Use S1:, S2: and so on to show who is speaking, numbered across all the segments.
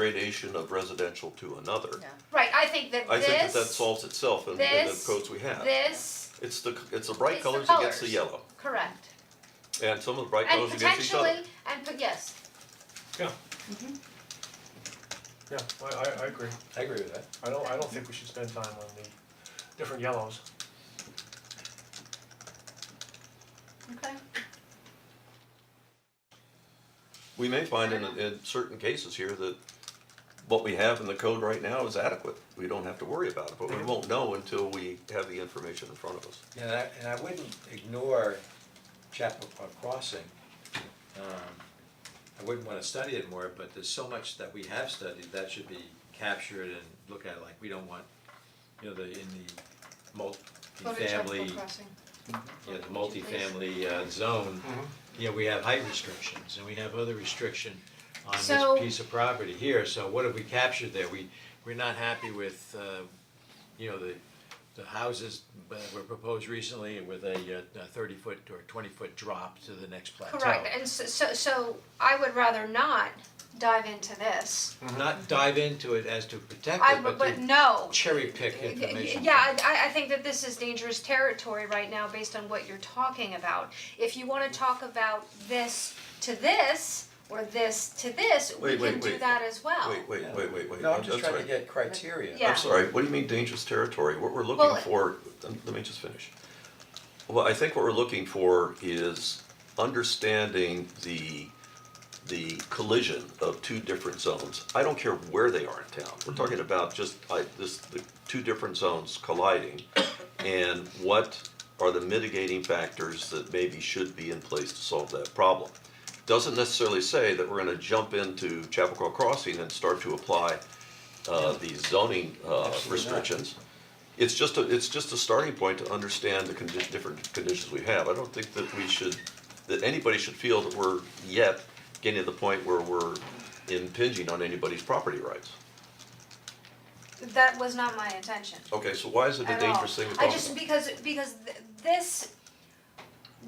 S1: gradation of residential to another.
S2: Yeah.
S3: Right, I think that
S1: I think that
S3: this,
S1: that solves itself in in the
S3: this-
S1: codes we have.
S3: this,
S1: It's the, it's the bright
S3: It's the
S1: colors against the
S3: colours.
S1: yellow,
S3: correct.
S1: and some of the bright
S3: And
S1: colors against each other.
S3: potentially, and, but yes,
S4: Yeah. Yeah, I, I, I agree.
S5: I agree with that.
S4: I don't, I don't think we should spend time on the different yellows.
S3: okay,
S1: We may find in in certain cases here that what we have in the code right now is adequate, we don't have to worry about it, but we won't know until we have the information in front of us.
S5: And I, and I wouldn't ignore Chappaqua Crossing. Um, I wouldn't wanna study it more, but there's so much that we have studied that should be captured and looked at, like, we don't want, you know, the, in the multi-family,
S3: crossing.
S5: you know, the multi-family uh, zone, you know, we have height restrictions and we have other restriction on
S3: So-
S5: this piece of property here, so what have we captured there? We, we're not happy with, uh, you know, the, the houses uh, were proposed recently with a thirty foot or twenty foot drop to the next plateau.
S3: Correct, and so, so, so I would rather not dive into this.
S5: Not dive into it as to protect
S3: I,
S5: it,
S3: would-
S5: but
S3: but
S5: to
S3: no,
S5: cherry
S3: Y-
S5: pick
S3: y-
S5: information.
S3: Yeah, I I think that this is dangerous territory right now based on what you're talking about. If you wanna talk about this to this or this to this, we
S1: Wait, wait,
S3: can do
S1: wait.
S3: that as well.
S1: Wait, wait, wait, wait, wait,
S5: No, I'm
S1: That-
S5: just
S1: that's
S5: trying to
S1: right.
S5: get criteria.
S3: Yeah.
S1: I'm sorry, what do you mean dangerous territory? What we're
S3: Well,
S1: looking
S3: it-
S1: for, let me just finish. Well, I think what we're looking for is understanding the, the collision of two different zones. I don't care where they are in town, we're talking about just, I, this, the two different zones colliding. And what are the mitigating factors that maybe should be in place to solve that problem? Doesn't necessarily say that we're gonna jump into Chappaqua Crossing and start to apply uh, these zoning uh, restrictions. It's just a, it's just a starting point to understand the condi- different conditions we have. I don't think that we should, that anybody should feel that we're yet getting to the point where we're impinging on anybody's property rights.
S3: That was not my intention.
S1: Okay, so why is it a
S3: at all.
S1: dangerous thing to talk
S3: I
S1: about?
S3: just, because, because th- this,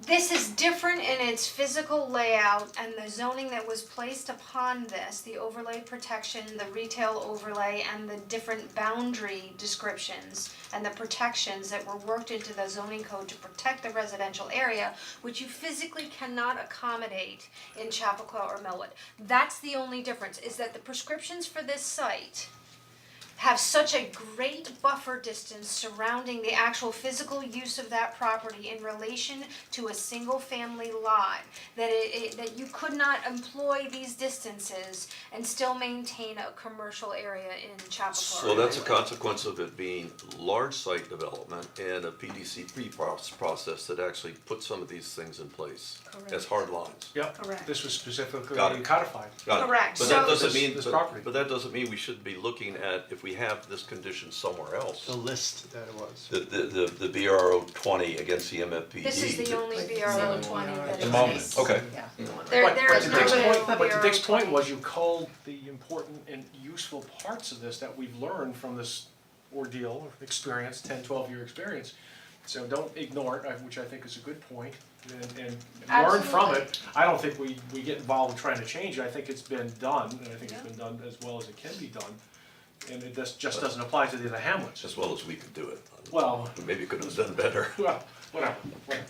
S3: this is different in its physical layout and the zoning that was placed upon this, the overlay protection, the retail overlay, and the different boundary descriptions and the protections that were worked into the zoning code to protect the residential area, which you physically cannot accommodate in Chappaqua or Millwood. That's the only difference, is that the prescriptions for this site have such a great buffer distance surrounding the actual physical use of that property in relation to a single family lot that it, it that you could not employ these distances and still maintain a commercial area in Chapel
S1: So that's a consequence of it being large site development and a PDC pre process that actually puts some of these things in place as
S3: Correct.
S1: hard lines.
S3: Correct.
S4: Yep, this was specifically
S1: Got it.
S4: codified.
S1: Got it.
S3: Correct.
S1: But that
S3: So-
S1: doesn't
S4: This-
S1: mean,
S4: this
S1: but,
S4: property.
S1: but that doesn't mean we should be looking at, if we have this condition somewhere else,
S6: the list that it was.
S1: the, the, the, the BRO twenty against the MFPD.
S3: This is the only BRO twenty that
S6: The
S3: exists.
S1: E Okay,
S2: Yeah.
S3: There,
S4: E. But-
S3: there is no
S4: But to Dick's
S3: BRO
S4: point, but to Dick's point
S3: 20.
S4: was you culled the important and useful parts of this that we've learned from this ordeal, or experience, 10, 12 year experience. So don't ignore it, I- which I think is a good point, and, and learn from
S3: Absolutely.
S4: it. I don't think we, we get involved in trying to change it, I think it's been done, and I think it's
S3: Yeah.
S4: been done as well as it can be done. And it just, just doesn't apply to the other hamlets,
S1: as well as we could do it.
S4: Well-
S1: Maybe could have done better,
S4: well, whatever, whatever,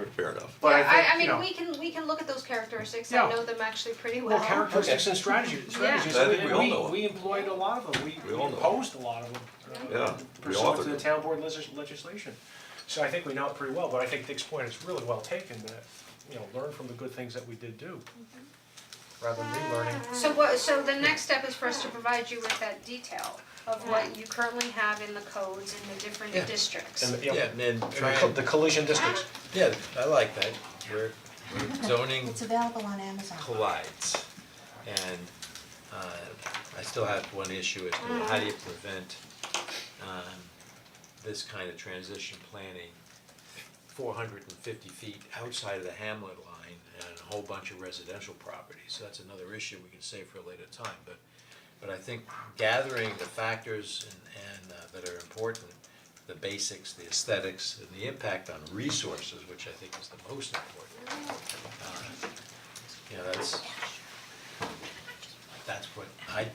S4: okay.
S1: fair enough.
S4: But I
S3: Yeah,
S4: think, you
S3: I,
S4: know-
S3: I mean, we can, we can look at those characteristics, I
S4: Yeah.
S3: know them actually pretty well.
S4: Well, characteristics and strategy, strategies,
S1: I think we all
S4: and
S1: know
S4: we, we employed a lot of them, we
S1: We
S4: we
S1: all know.
S4: imposed a lot of them. uh,
S1: Yeah, we authored
S4: Pursuant to the
S1: them.
S4: town board legis- legislation. So I think we know it pretty well, but I think Dick's point is really well taken, that, you know, learn from the good things that we did do. Rather than relearning.
S3: So what, so the next step is for us to provide you with that detail of what you currently have in the codes in the different
S5: Yeah.
S1: Mm-hmm.
S3: districts.
S4: And, you know,
S5: Yeah, and then
S4: and
S5: try
S4: the co- the
S5: and,
S4: collision districts.
S5: yeah, I like that, we're, we're zoning
S7: It's available on Amazon.
S5: collides. And uh I still have one issue as to how do you prevent um this kind of transition planning four hundred and fifty feet outside of the hamlet line and a whole bunch of residential properties, so that's another issue we can save for a later time, but but I think gathering the factors and and uh that are important, the basics, the aesthetics, and the impact on resources, which I think is the most important. uh, you know, that's that's what I